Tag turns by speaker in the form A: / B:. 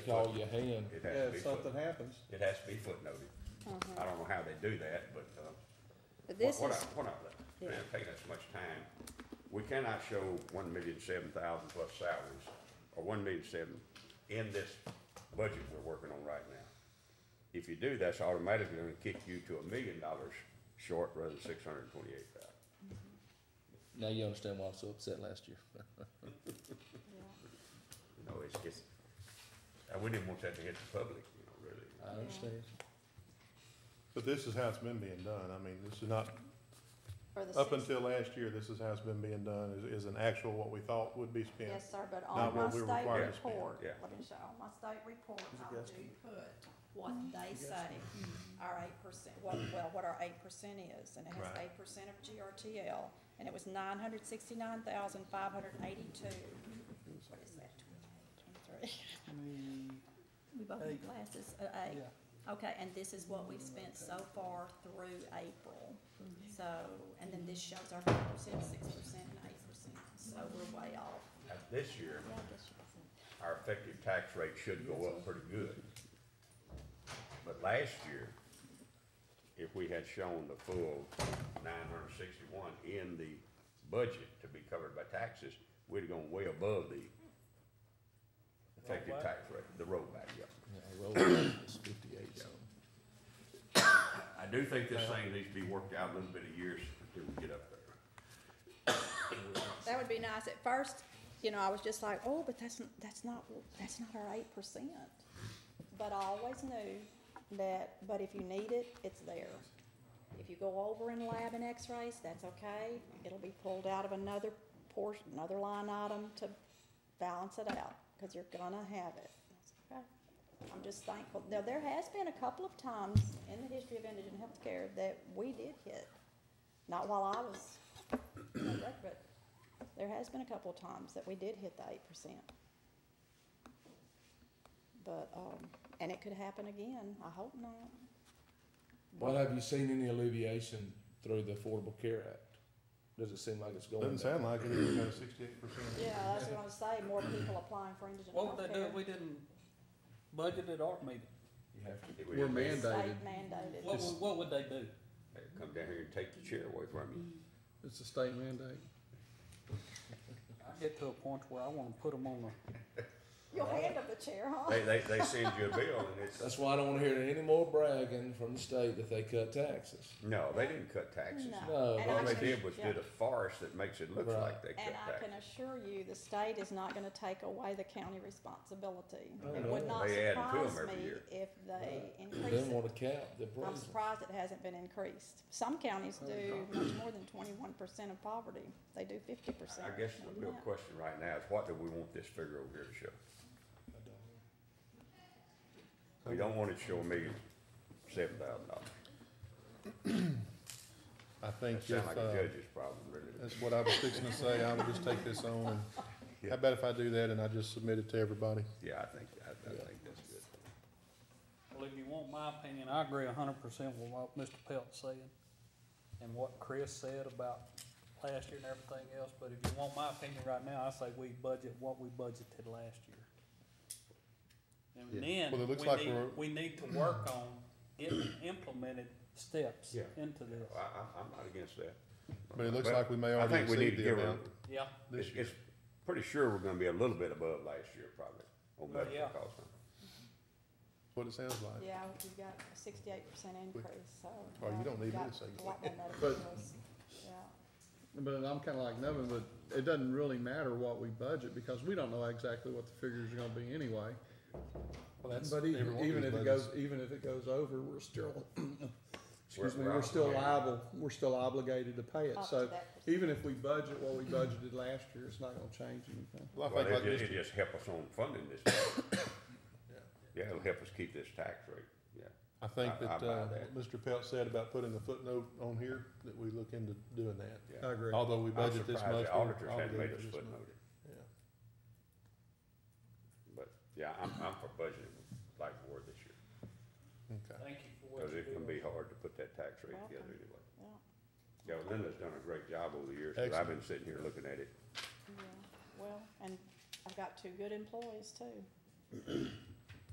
A: It's all you hand.
B: It has to
C: Yeah,
B: be
C: if
B: foot,
C: something happens,
B: it has to be footnoted. I don't know how they do that, but, uh,
D: But
B: what,
D: Uh-huh. this
B: what I,
D: is,
B: what I, man, it takes us much time. We cannot show one million seven thousand plus salaries, or one million seven in this budget we're working on right now. If you do, that's automatically gonna kick you to a million dollars short rather than six hundred and twenty-eight thousand.
A: Now you understand why I was so upset last year.
B: You know, it's just, I wouldn't even want that to hit the public, you know, really.
A: I understand.
E: But this is how it's been being done. I mean, this is not,
D: for the
E: up
D: six-
E: until last year, this is how it's been being done, is, is an actual what we thought would be spent.
D: Yes, sir, but on
E: Not
D: my
E: what we're
D: state
B: to
E: required spend.
D: report,
B: Yeah.
D: let me show, on my state report,
C: It's a
D: I do
C: guesstimate.
D: put what they say our eight percent, what, well, what our eight percent is, and it has
E: Right.
D: eight percent of GRTL, and it was nine hundred sixty-nine thousand five hundred eighty-two. What is that, twenty-eight, twenty-three? We both
C: Eight.
D: need glasses, uh, eight. Okay, and this is what we've spent so far through April. So, and then this shows our five percent, six percent, and eight percent, so we're way off.
B: Now, This year, our effective tax rate should go up pretty good. But last year, if we had shown the full nine hundred sixty-one in the budget to be covered by taxes, we'd have gone way above the effective
C: Rollback?
B: tax rate, the rollback, yeah.
A: Yeah, I rolled it. It's fifty-eight, so.
B: I do think this thing needs to be worked out a little bit of years until we get up there.
D: That would be nice. At first, you know, I was just like, oh, but that's, n- that's not, that's not our eight percent. But I always knew that, but if you need it, it's there. If you go over in lab and x-rays, that's okay. It'll be pulled out of another portion, another line item to balance it out, cause you're gonna have it. That's okay. I'm just thankful. Now, there has been a couple of times in the history of indigent healthcare that we did hit. Not while I was on rec, but there has been a couple of times that we did hit the eight percent. But, um, and it could happen again, I hope not.
A: Well, have you seen any alleviation through the Affordable Care Act? Does it seem like it's going?
E: Doesn't
A: down?
E: sound like it, it's got sixty-eight percent.
D: Yeah, that's what I was saying, more people applying for indigent
C: what would they do if
D: healthcare.
C: we didn't budget at our meeting?
A: You have to.
B: It
A: We're
B: would-
A: mandated.
D: State mandated.
C: What
A: It's-
C: would, what would they do?
B: They'd Come down here and take the chair away from you.
A: It's a state mandate.
C: I get to a point where I wanna put them on the,
D: You'll hand them the chair, huh?
B: They, they, they send you a bill and it's,
A: That's why I don't wanna hear any more bragging from the state that they cut taxes.
B: no, they didn't cut taxes.
A: No,
D: And
B: All
D: I
B: they
D: can-
B: did was
D: yeah.
B: did a farce that makes it look
A: Right.
B: like they cut
D: And I can
B: taxes.
D: assure you, the state is not gonna take away the county responsibility.
A: Oh,
D: It
A: no.
D: would not
B: They add to 'em
D: surprise
B: every
D: me
B: year.
D: if they
A: They
D: increase
A: didn't
D: it.
A: wanna cap the
D: I'm
A: appraisal.
D: surprised it hasn't been increased. Some counties do much more than twenty-one percent of poverty. They do fifty percent.
B: I guess the real question right now is what do we want this figure over here to show? We don't want it to show a million, seven thousand dollars.
E: I think
B: That
E: if,
B: sounds like a
E: uh,
B: judge's problem, really.
E: that's what I was fixing to say, I would just take this on and, how about if I do that and I just submit it to everybody?
B: Yeah, I think, I, I think that's good.
C: well, if you want my opinion, I agree a hundred percent with what Mr. Pelt said and what Chris said about last year and everything else, but if you want my opinion right now, I say we budget what we budgeted last year. And then,
E: Well, it looks
C: we
E: like
C: need,
E: we're-
C: we need to work on getting implemented steps
B: Yeah.
C: into this,
B: I, I, I'm not against that.
E: But it looks like we may
B: I
E: already
B: think we need
E: exceed
B: to
E: the
B: give
E: amount.
B: her,
C: yeah.
B: it's, it's pretty sure we're gonna be a little bit above last year probably
F: Uh,
B: on
C: Well,
B: medical
C: yeah.
B: costs.
E: That's what it sounds like.
D: Yeah, you've got a sixty-eight percent increase, so.
E: Well, Oh, you
D: yeah,
E: don't need
D: you've got
E: me to say
D: A lot more medical
F: But-
D: bills, yeah.
F: But I'm kinda like Nevin, but it doesn't really matter what we budget, because we don't know exactly what the figures are gonna be anyway.
E: Well, that's
F: But even,
E: everyone
F: even
E: who's
F: if it
E: budgeted.
F: goes, even if it goes over, we're still, excuse me,
B: We're- we're
F: we're still
B: obligated.
F: liable, we're still obligated to pay it,
D: Up to
F: so
D: that percent.
F: even if we budget what we budgeted last year, it's not gonna change anything.
E: Well, I
B: Well,
E: think
B: it
E: like
B: just,
E: Mr.
B: it just help us on funding this. Yeah, it'll help us keep this tax rate, yeah.
E: I think
B: I- I
E: that,
B: buy
E: uh,
B: that.
E: what Mr. Pelt said about putting the footnote on here, that we look into doing that.
B: Yeah.
F: I agree.
E: Although we
B: I'm
E: budget this
B: surprised
E: much.
B: the
E: we're
B: auditors hadn't made
E: obligated
B: us
E: this much.
B: footnote it,
E: Yeah.
B: but, yeah, I'm, I'm for budgeting like we were this year,
E: Okay.
C: Thank you for what
B: cause
C: you
B: it
C: do.
B: can be hard to put that tax rate together anyway.
D: Yeah,
B: Yeah, well, Linda's done a great job over the years, but I've been sitting here looking at it,
D: yeah. Well, and I've got two good employees too.